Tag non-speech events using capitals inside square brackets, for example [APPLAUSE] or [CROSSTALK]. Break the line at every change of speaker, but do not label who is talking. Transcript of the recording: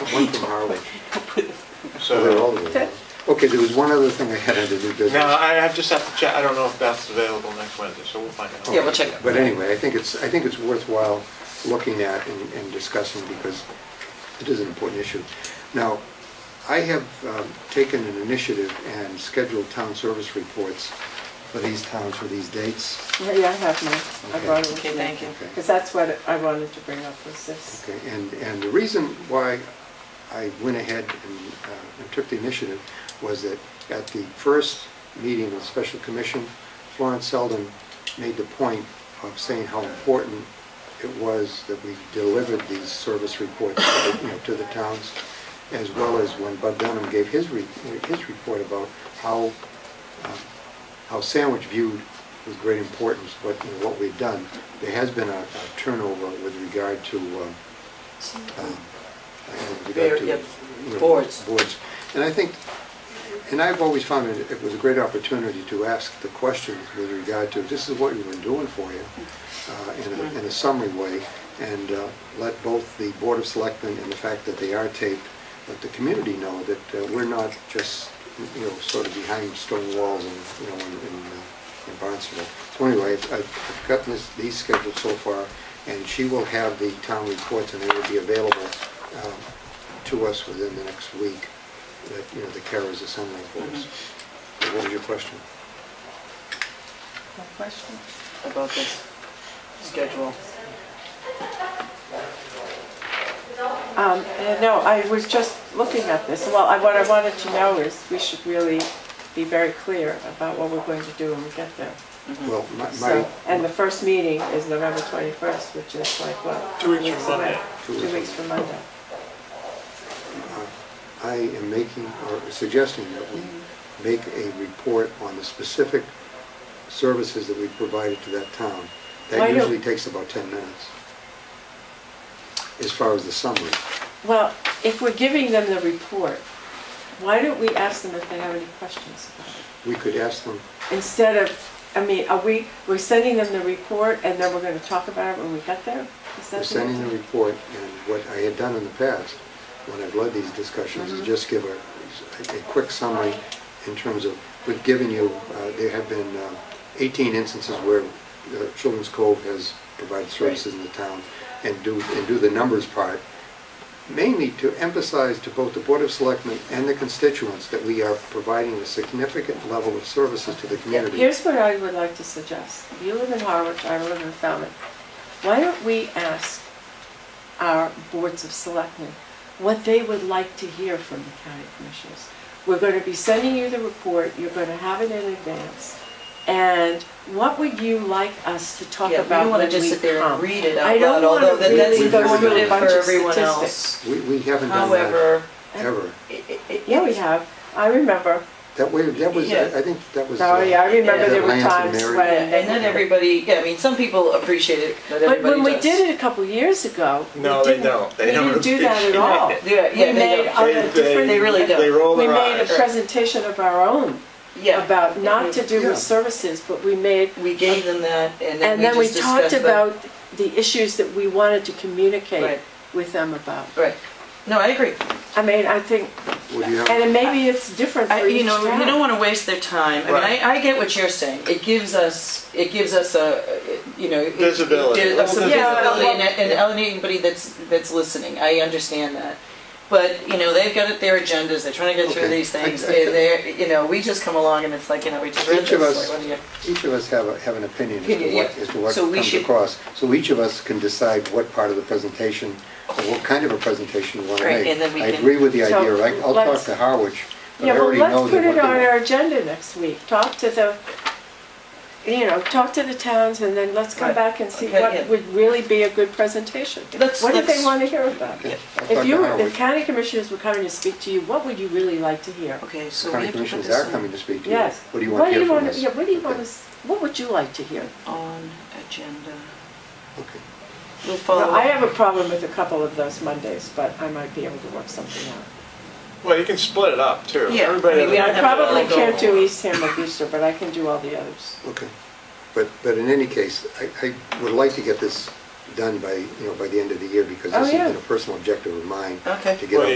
One from Harley. Oh, They're all
So,
the way. Okay, there was one other thing I had under new business.
now, I I just have to check, I don't know if Beth's available next Wednesday, so we'll find out.
Yeah, we'll check it.
But anyway, I think it's, I think it's worthwhile looking at and and discussing because it is an important issue. Now, I have um, taken an initiative and scheduled town service reports for these towns for these dates.
Yeah, yeah, I have mine. I
Okay.
brought it.
Okay, thank you.
Okay.
Because that's what I wanted to bring up was this.
Okay, and, and the reason why I went ahead and uh, and took the initiative was that at the first meeting of the special commission, Florence Selden made the point of saying how important it was that we delivered these service reports, to the- you know, to the towns, as well as when Bud Dunham gave his, re- his report about how, um, how Sandwich viewed with great importance what, you know, what we've done. There has been a a turnover with regard to, um, um, with regard to,
Very, yep,
you know,
boards.
Boards. And I think, and I've always found it, it was a great opportunity to ask the questions with regard to, this is what we've been doing for you, uh, in a, in a summary way, and uh, let both the Board of Selectmen and the fact that they are taped, let the community know that uh, we're not just, you know, sort of behind stone walls and, you know, in, in, uh, in Barnstable. So anyway, I've- I've gotten this, these scheduled so far, and she will have the town reports, and they will be available um, to us within the next week, that, you know, the carers are sending for us. What was your question?
No question?
about this schedule.
Um, and no, I was just looking at this. Well, I, what I wanted to know is we should really be very clear about what we're going to do when we get there.
Well, my,
So,
my-
and the first meeting is November 21st, which is like, what?
Two weeks from
away.
Monday.
Two weeks.
Two weeks from Monday.
I am making, or suggesting that we make a report on the specific services that we provided to that town. That
Why don't-
usually takes about 10 minutes, as far as the summary.
Well, if we're giving them the report, why don't we ask them if they have any questions about it?
We could ask them,
instead of, I mean, are we, we're sending them the report and then we're gonna talk about it when we get there? Is that
we're
the-
sending the report, and what I had done in the past, when I've led these discussions, is just give a, a quick summary in terms of, we've given you, uh, there have been uh, 18 instances where uh, Children's Cove has provided services in the town, and do, and do the numbers part, mainly to emphasize to both the Board of Selectmen and the constituents that we are providing a significant level of services to the community.
Here's what I would like to suggest. You live in Harwich, I live in Falmouth. Why don't we ask our boards of selectmen what they would like to hear from the county commissioners? We're gonna be sending you the report, you're gonna have it in advance. And what would you like us to talk
Yeah,
about
we don't want
when
to just
we
sit there
come?
and read it
I
out
don't
loud, although
wanna
that- that's
really
go through a
informative for
bunch of
everyone else.
statistics.
We, we haven't done that
However,
ever.
it- it- it-
Yeah, we have. I remember.
That way, that was,
Yeah.
I I think that was.
Oh,
uh,
yeah, I remember there were
Lance and
times
Mary.
Yeah,
when.
uh, And then everybody, yeah, I mean, some people appreciate it, not
But
everybody
when we
does.
did it a couple years ago. we
No, they
didn't-
don't. They
We
don't
didn't do that
[LAUGHS]
at
appreciate
all.
it.
[LAUGHS] Yeah, yeah,
We
they
made
don't.
on
They-
a
they-
different.
They really don't.
They roll
We
their
made a
eyes.
presentation of our own
Yeah.
about not to do
Yeah.
with services, but we made,
We gave them that and then
and
we
then we
just
talked
discussed them.
about the issues that we wanted to
Right.
communicate with them about.
Right. No, I agree.
I mean, I think,
Would you have,
and maybe it's different
I,
for
you
each
know, you don't
town.
want to waste their time. I mean,
Right.
I, I get what you're saying. It gives us, it gives us a, you know, it-
Visibility.
it gives us some
Yeah,
visibility
well-
and, and anybody that's that's listening. I understand that, but you know, they've got it, their agendas. They're trying to get through
Okay.
these things,
I- I-
and they're, you know, we just come along and it's like, you know, we just read
Each of
this,
us-
like, what do you-
each of us have, a- have an opinion as to
Opinion,
what,
yeah.
as to what
So we
comes
should-
across. So each of us can decide what part of the presentation, or what kind of a presentation we want to
Right,
make.
and then we
I
can-
agree with the
So,
idea, I- I'll talk
let's-
to Harwich, but I
Yeah, well,
already know
let's
that
put it
what
on our
they...
agenda next week. Talk to the, you know, talk to the towns and then let's come
Right.
back and see
Okay, yeah.
what would really be a good presentation.
Let's-
What do
let's-
they want to hear about?
Okay, I'll talk
If
to
you, were- if
Harwich.
county commissioners were coming to speak to you, what would you really like to hear?
Okay, so we
County
have to put
commissioners
this
are
on,
coming to speak to you.
Yes.
What do you want to hear from
wanna-
us?
Yeah, what do you
Okay,
want to, what would you like to hear?
on agenda.
okay.
We'll follow.
Well, I
up.
have a problem with a couple of those Mondays, but I might be able to work something out.
Well, you can split it up, too.
Yeah, I
Everybody
mean, we
doesn't
don't
I
have to
probably
all go.
can't do East Hamlet Easter, but I can do all the others.
Okay, but, but in any case, I, I would like to get this done by, you know, by the end of the year, because
Oh,
this has
yeah.
been a personal objective of mine.
Okay.
To get
Well,
on